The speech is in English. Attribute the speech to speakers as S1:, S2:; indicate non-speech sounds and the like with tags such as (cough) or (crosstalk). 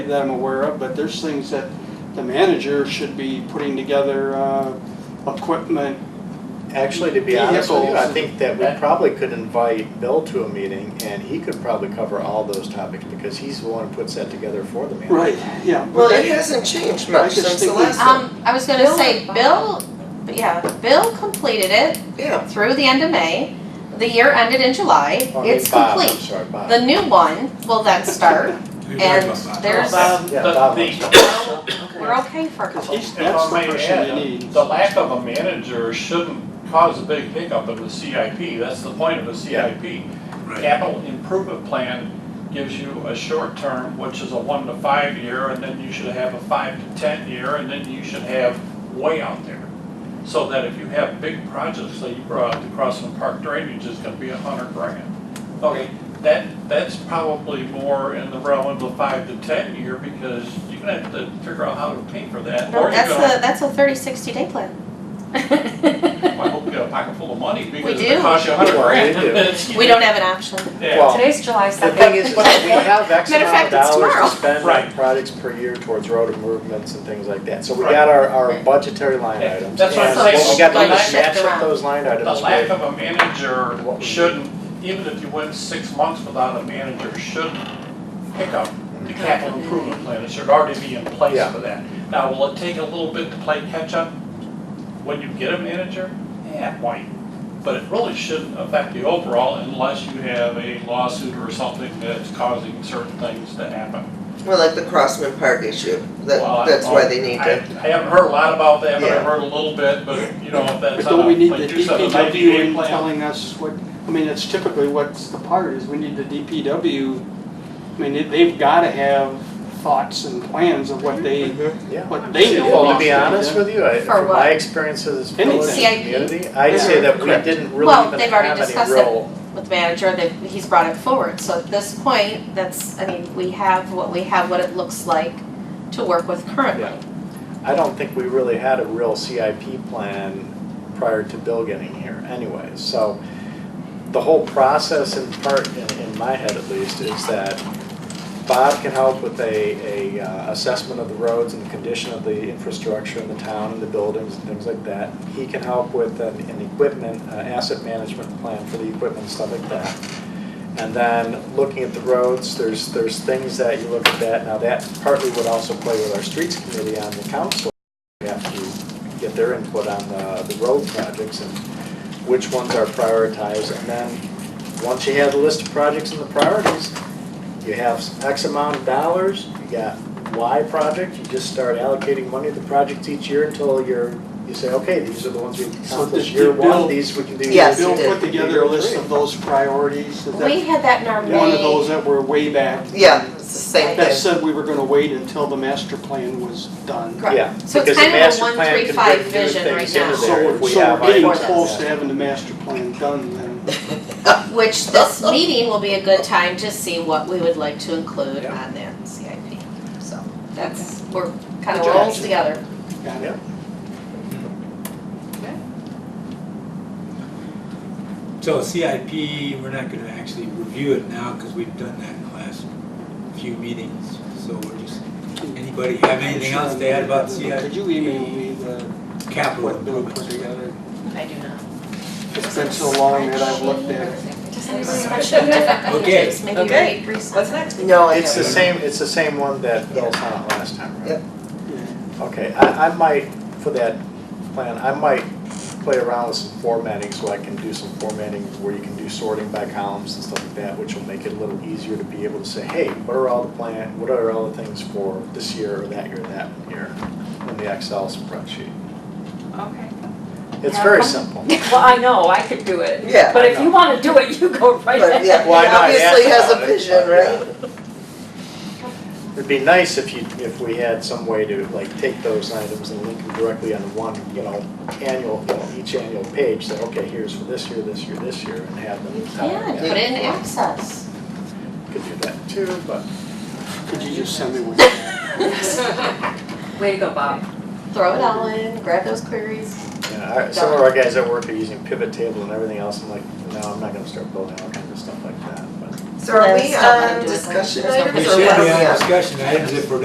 S1: that I'm aware of, but there's things that the manager should be putting together, uh, equipment.
S2: Actually, to be honest with you, I
S1: Vehicles.
S2: think that we probably could invite Bill to a meeting and he could probably cover all those topics because he's the one who puts that together for the manager.
S1: Right, yeah. but
S3: Well,
S1: that-
S3: it hasn't changed
S1: I
S3: much
S1: just
S3: since the
S1: think we-
S3: last one.
S4: Um, I was gonna
S3: Bill-
S4: say, Bill, yeah, Bill completed it
S3: Yeah,
S4: through the end of May. The year ended in July.
S2: Or
S4: It's
S2: Bob, I'm
S4: complete.
S2: sorry, Bob.
S4: The new one will then
S2: (laughs)
S4: start. And there's,
S5: Um,
S2: Yeah,
S5: but
S2: Bob,
S5: the,
S2: I'm sorry.
S4: we're (coughs) okay for a couple.
S1: He's,
S5: if I
S1: that's the
S5: may
S1: person you
S5: add,
S1: need.
S5: the lack of a manager shouldn't cause a big hiccup in the CIP. That's the point of a CIP. Capital improvement plan gives you a short term, which is a one to five year, and then you should have a five to ten year, and then you should have way out there. So that if you have big projects that you brought up, the Crossland Park drainage is gonna be a hundred grand. Okay, that, that's probably more in the realm of the five to ten year, because you're gonna have to figure out how to pay for that.
S4: No,
S5: or you're
S4: that's
S5: gonna.
S4: a, that's a thirty, sixty day
S2: (laughs)
S4: plan.
S5: I hope you have a pocket full of money, because
S4: We
S5: if it
S4: do.
S5: costs you a hundred
S2: Well, we
S5: grand,
S2: do.
S5: that's.
S4: We don't have an option.
S5: Yeah.
S2: Well,
S6: Today's July
S2: The thing
S6: second.
S2: is, is that we have X
S4: Matter of
S2: amount of
S4: fact, it's tomorrow.
S2: dollars to spend on
S5: Right.
S2: projects per year towards road improvements and things like that. So we
S5: Right.
S2: got our, our budgetary line
S5: Yeah,
S2: items.
S5: that's what
S2: and
S5: I'm saying.
S2: What we got to do
S5: Like,
S2: is match
S4: shift
S2: up
S4: around.
S2: those line items.
S5: The lack
S2: with-
S5: of a manager shouldn't, even if you went six months without a manager, shouldn't pick up the capital improvement plan. It should already be in place
S2: Yeah.
S5: for that. Now, will it take a little bit to play catch-up when you get a manager? Yeah, it might. But it really shouldn't affect the overall unless you have a lawsuit or something that's causing certain things to happen.
S3: well, like the Crossman Park issue,
S5: Well, I
S3: that,
S5: don't
S3: that's why
S5: know.
S3: they need
S5: I,
S3: to.
S5: I haven't heard a lot about that, but
S3: Yeah.
S5: I've heard a little bit, but you know, if
S1: But
S5: that's
S1: don't
S5: on
S1: we
S5: a,
S1: need the
S5: like you said, a
S1: DPW
S5: ninety-day
S1: in
S5: plan.
S1: telling us what, I mean, that's typically what's the part is, we need the DPW. I mean, they- they've gotta have thoughts and plans of what they,
S2: Yeah.
S1: what they
S4: Well,
S1: know.
S2: Well, to
S1: wants
S2: be
S1: do.
S2: honest with you, I,
S4: For
S2: from
S4: what?
S2: my experiences as a village
S1: Anything.
S2: and
S4: CIP?
S2: community, I'd say that we
S1: Correct.
S2: didn't really
S4: Well,
S2: even
S4: they've already
S2: have
S4: discussed
S2: any
S4: it.
S2: role.
S4: (laughs) with the manager, that he's brought it forward. So at this point, that's, I mean, we have what we have, what it looks like to work with
S2: Yeah.
S4: currently.
S2: I don't think we really had a real CIP plan prior to Bill getting here anyways. So the whole process in part, in, in my head at least, is that Bob can help with a, a uh, assessment of the roads and the condition of the infrastructure in the town and the buildings and things like that. He can help with an, an equipment, uh, asset management plan for the equipment and stuff like that. And then looking at the roads, there's, there's things that you look at that, now that partly would also play with our streets committee on the council. We have to get their input on the, the road projects and which ones are prioritized. And then, once you have the list of projects and the priorities, you have X amount of dollars, you got Y project, you just start allocating money to the projects each year until you're, you say, okay, these are the ones we can
S1: So
S2: accomplish
S1: did-
S2: year
S1: did Bill-
S2: one, these we can do year two.
S3: Yes, he
S1: Bill
S3: did.
S1: put together a list of those priorities, is
S4: We
S1: that
S4: had that in our May.
S1: one of those that were way back?
S3: Yeah, it's the same
S1: That
S3: thing.
S1: said, we were gonna wait until the master plan was done.
S4: Correct.
S2: Yeah,
S4: So it's
S2: because the
S4: kind of a
S2: master
S4: one,
S2: plan
S4: three,
S2: can
S4: five
S2: bring new
S4: vision
S2: things
S4: right
S2: into
S4: now.
S1: So
S2: there
S1: we're,
S2: if we
S1: so
S2: have
S1: we're getting
S2: items on
S1: close to
S2: that.
S1: having the master plan done then.
S4: Which this meeting will be a good time to see what we would like to include
S2: Yeah.
S4: on that CIP. So that's, we're kind of
S2: Good
S4: rolls
S2: job.
S4: together.
S1: Got it.
S2: Yeah.
S7: So CIP, we're not gonna actually review it now, because we've done that in the last few meetings, so we're just, anybody have anything else to add about
S1: Could
S7: CIP
S1: you email me the,
S7: capital
S1: what Bill put
S7: improvements?
S1: together?
S4: I do not.
S1: It's been so long that I've looked at it.
S4: Does anybody have different
S7: Okay.
S4: pages? (laughs) Maybe
S6: Okay.
S4: read recent.
S6: What's next?
S3: No, I
S2: It's the
S3: haven't.
S2: same, it's the same one that Bill sent out last time, right?
S3: Yep.
S2: Okay, I, I might, for that plan, I might play around with some formatting, so I can do some formatting where you can do sorting by columns and stuff like that, which will make it a little easier to be able to say, hey, what are all the plan, what are all the things for this year, or that year, that year, in the Excel spreadsheet.
S6: Okay.
S2: It's very (laughs) simple.
S6: Well, I know, I could do it.
S3: Yeah.
S6: But if you wanna do it, you go right
S3: But yeah,
S6: ahead.
S3: he
S2: Why not?
S3: obviously
S2: Ask
S3: has
S2: about
S3: a
S2: it,
S3: vision,
S2: but yeah.
S3: right?
S2: It'd be nice if you, if we had some way to like take those items and link them directly on one, you know, annual, you know, each annual page, say, okay, here's for this year, this year, this year, and have them.
S4: You can, put it in access.
S2: Could do that too, but.
S1: Could you just send me one?
S6: (laughs) Way to go, Bob.
S4: Throw it all in, grab those queries.
S2: Yeah, our- some of our guys at work are using pivot table and everything else, I'm like, no, I'm not gonna start building all kinds of stuff like that, but.
S3: So are we
S4: Still
S3: on
S4: wanna do it.
S3: discussion
S4: There's no
S3: items
S7: We
S3: or
S7: should
S3: what
S7: be
S3: are we
S7: on
S3: on?
S7: discussion items if we're